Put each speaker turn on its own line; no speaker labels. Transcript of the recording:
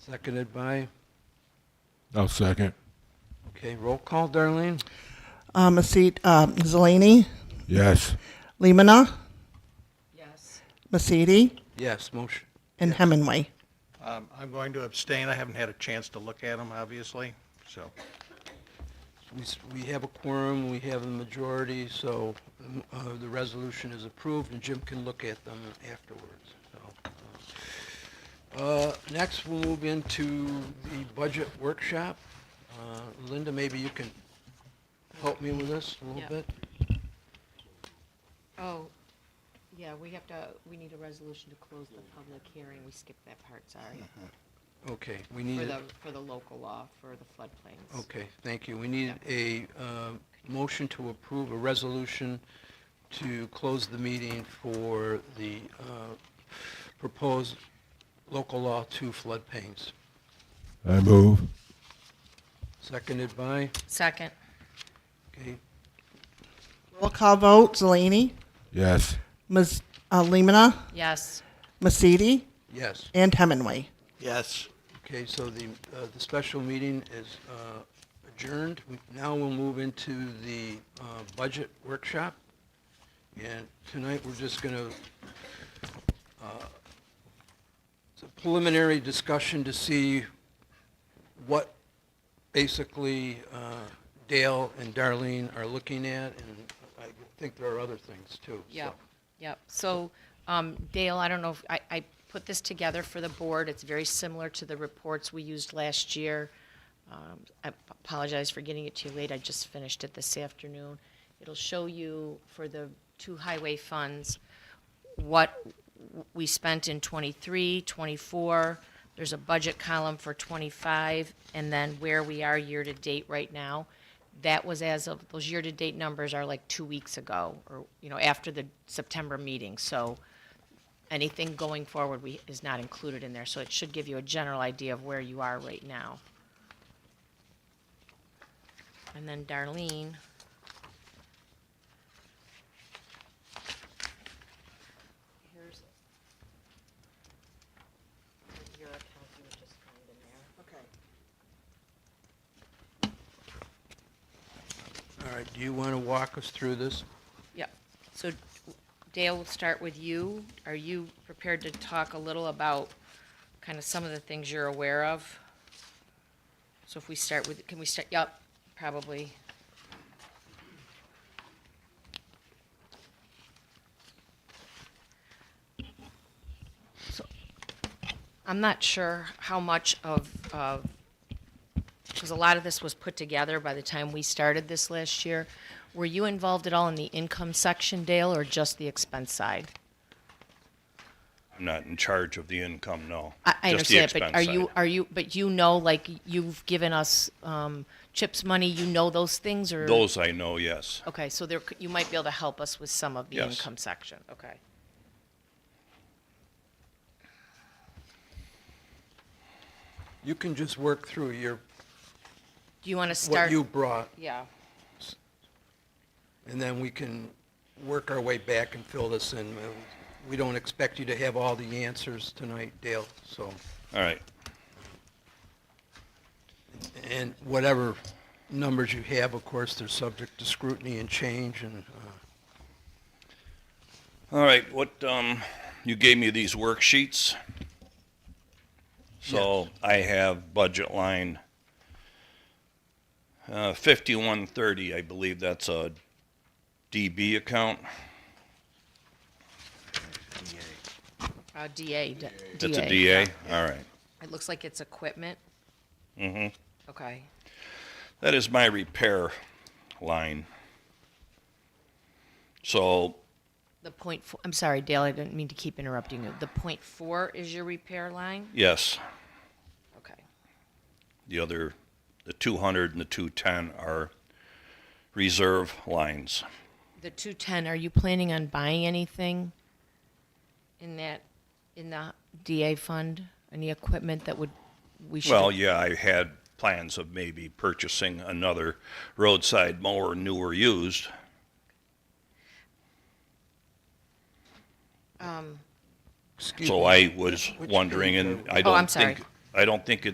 Seconded by,
I'll second.
okay, roll call, Darlene?
Um, Masid, um, Zelini,
Yes.
Limina,
Yes.
Masidi,
Yes, motion,
and Hemingway.
Um, I'm going to abstain. I haven't had a chance to look at them, obviously, so.
we s- we have a quorum, we have a majority, so um, uh, the resolution is approved, and Jim can look at them afterwards, so. uh, Next, we'll move into the budget workshop. Uh, Linda, maybe you can help me with this a
Yeah.
little bit?
Oh, yeah, we have to, we need a resolution to close the public hearing. We skipped that part, sorry.
Okay, we
For
need,
the,
a-
for the local law, for the floodplains.
okay, thank you. We need a uh, motion to approve a resolution to close the meeting for the uh, proposed local law two floodplains.
I move.
Seconded by,
Second.
okay,
Roll call vote, Zelini,
Yes.
Mas, uh, Limina,
Yes.
Masidi,
yes.
and Hemingway.
Yes.
Okay, so the, uh, the special meeting is uh, adjourned. We- Now we'll move into the uh, budget workshop. And tonight, we're just going to, it's a preliminary discussion to see what basically uh, Dale and Darlene are looking at, and I think there are other things too. so.
Yep, yep. So um, Dale, I don't know, if I, I put this together for the board. It's very similar to the reports we used last year. Um, I apologize for getting it to you late. I just finished it this afternoon. It'll show you for the two highway funds, what w- we spent in '23, '24. There's a budget column for '25, and then where we are year-to-date right now. That was as of, those year-to-date numbers are like two weeks ago, or, you know, after the September meeting. So anything going forward we, is not included in there. So it should give you a general idea of where you are right now. And then Darlene. Here's your account you were just kind in there.
Okay.
All right, do you want to walk us through this?
Yep. So Dale, we'll start with you. Are you prepared to talk a little about kind of some of the things you're aware of? So if we start with, can we start, yep, probably. So, I'm not sure how much of, of because a lot of this was put together by the time we started this last year. Were you involved at all in the income section, Dale, or just the expense side?
I'm not in charge of the income, no.
I, I
Just the
understand, but
expense
are
side.
you, are you, but you know, like, you've given us, um, CHIPS money, you know those things, or?
Those I know, yes.
Okay, so there, c- you might be able to help us with some of the
Yes.
income section, okay.
You can just work through your,
Do you want to start?
what you brought,
Yeah,
and then we can work our way back and fill this in. Uh, We don't expect you to have all the answers tonight, Dale, so,
All right.
and whatever numbers you have, of course, they're subject to scrutiny and change, and, uh,
All right, what, um, you gave me these worksheets. So I have budget line, uh, fifty-one thirty, I believe that's a DB account.
uh, DA, d- DA.
It's a DA, all right.
It looks like it's equipment? Mm-hmm. Okay,
That is my repair line. So
the point, four, I'm sorry, Dale, I didn't mean to keep interrupting you. The point four is your repair line?
Yes,
Okay.
the other, the 200 and the 210 are reserve lines.
The 210, are you planning on buying anything in that, in the DA fund? Any equipment that would, we should?
Well, yeah, I had plans of maybe purchasing another roadside mower, new or used.
excuse me.
So I was
Which
wondering,
page
and
are
I
Oh, I'm
don't
sorry.
think I don't think it's.